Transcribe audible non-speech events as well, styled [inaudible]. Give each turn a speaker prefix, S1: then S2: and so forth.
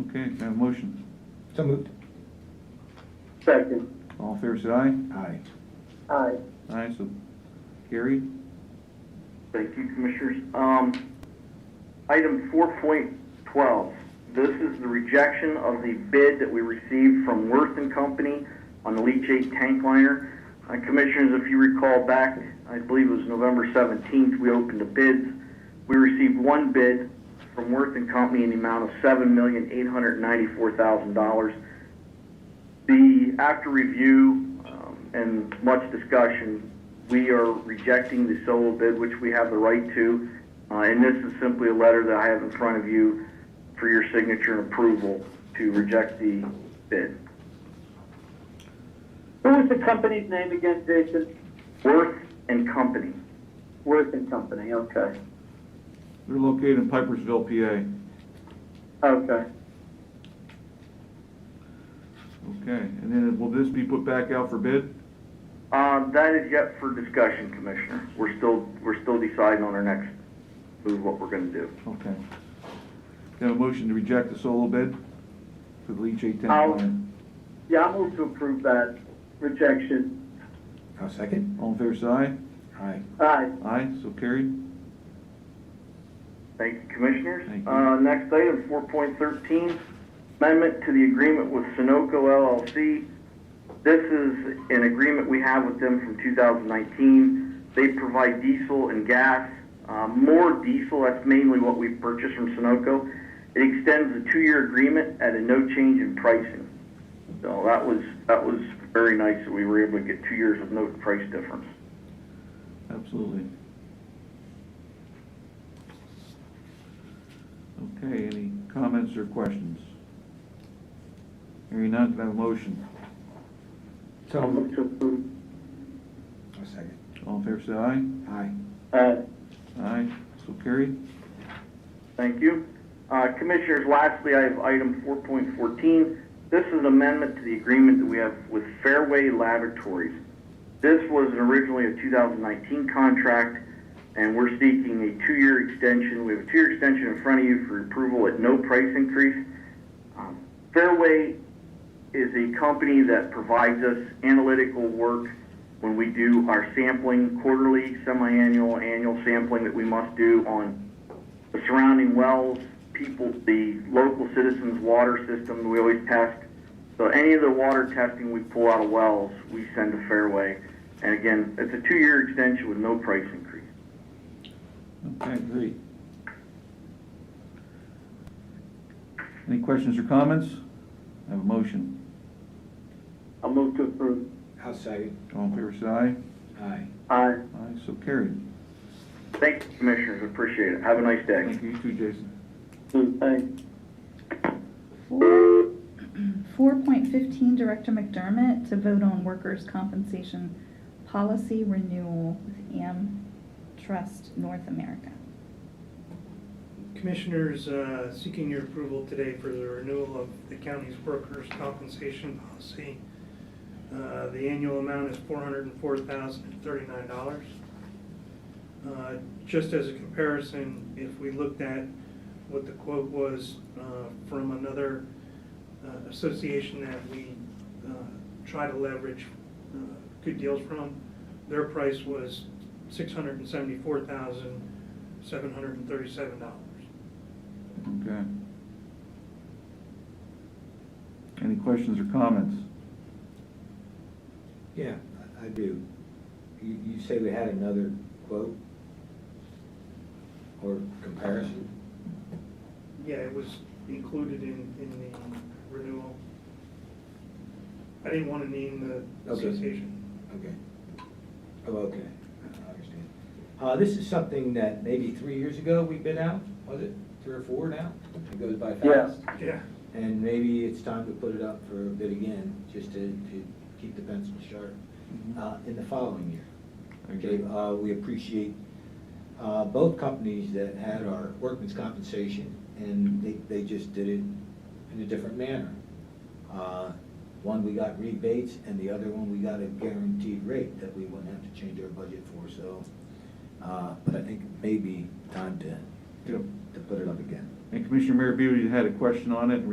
S1: Okay, can I have a motion?
S2: So moved.
S3: Second.
S1: All in favor, say aye.
S2: Aye.
S3: Aye.
S1: Aye, so carried.
S4: Thank you, Commissioners. Um, Item 4.12, this is the rejection of the bid that we received from Worth and Company on the leachate tank liner. Uh, Commissioners, if you recall back, I believe it was November 17th, we opened the bids. We received one bid from Worth and Company in the amount of $7,894,000. The, after review um, and much discussion, we are rejecting the solo bid, which we have the right to. Uh, And this is simply a letter that I have in front of you for your signature and approval to reject the bid.
S3: What was the company's name again, Jason?
S4: Worth and Company.
S3: Worth and Company, okay.
S1: They're located in Pipersville, PA.
S3: Okay.
S1: Okay, and then will this be put back out for bid?
S4: Uh, That is yet for discussion, Commissioner. We're still, we're still deciding on our next move, what we're going to do.
S1: Okay. Can I have a motion to reject the solo bid for the leachate tank
S3: I'll-
S1: liner?
S3: Yeah, I move to approve that rejection.
S2: I'll second.
S1: All in favor, say aye.
S2: Aye.
S3: Aye.
S1: Aye, so carried.
S4: Thank you, Commissioners.
S1: Thank you.
S4: Uh, Next item, 4.13, amendment to the agreement with Sunoco LLC. This is an agreement we have with them from 2019. They provide diesel and gas, uh, more diesel, that's mainly what we purchased from Sunoco. It extends a two-year agreement at a no change in pricing. So that was, that was very nice that we were able to get two years with no price difference.
S1: Absolutely. Okay, any comments or questions? Hearing none, can I have a motion?
S2: So
S3: I
S2: moved.
S3: move to approve.
S2: I'll second.
S1: All in favor, say aye.
S2: Aye.
S4: Uh,
S3: Aye.
S1: Aye, so carried.
S4: Thank you. Uh, Commissioners, lastly, I have item 4.14. This is an amendment to the agreement that we have with Fairway Laboratories. This was originally a 2019 contract, and we're seeking a two-year extension. We have a two-year extension in front of you for approval at no price increase. Um, Fairway is a company that provides us analytical work when we do our sampling, quarterly, semi-annual, annual sampling that we must do on the surrounding wells, people, the local citizens' water system, we always test. So any of the water testing we pull out of wells, we send to Fairway. And again, it's a two-year extension with no price increase.
S1: Okay, great. Any questions or comments? I have a motion.
S3: I move to approve.
S2: I'll second.
S1: All in favor, say aye.
S2: Aye.
S3: Aye.
S1: Aye, so carried.
S4: Thank you, Commissioners, appreciate it. Have a nice day.
S1: Thank you, you too, Jason.
S3: Thanks.
S5: [clears throat] Four point fifteen, Director McDermott to vote on workers' compensation policy renewal with AM Trust North America.
S6: Commissioners uh, seeking your approval today for the renewal of the county's workers' compensation policy. Uh, The annual amount is $404,039. Uh, Just as a comparison, if we looked at what the quote was uh, from another uh, association that we uh, try to leverage uh, good deals from, their price was $674,737.
S1: Okay. Any questions or comments?
S2: Yeah, I I do. You, you say we had another quote? Or comparison?
S6: Yeah, it was included in, in the renewal. I didn't want to name the
S2: Okay.
S6: association.
S2: Okay. Oh, okay. I understand. Uh, this is something that maybe three years ago we bid out, was it? Three or four now? It goes by
S3: Yeah.
S2: fast.
S6: Yeah,
S2: And maybe it's time to put it up for a bid again, just to, to keep the pencil sharp, uh, in the following year.
S1: Mm-hmm. I agree.
S2: Okay, uh, we appreciate, uh, both companies that had our workman's compensation, and they, they just did it in a different manner. Uh, One, we got rebates, and the other one, we got a guaranteed rate that we wouldn't have to change our budget for, so, uh, but I think maybe time to,
S1: Yep.
S2: to put it up again.
S1: And Commissioner Mayor Beauty had a question on it in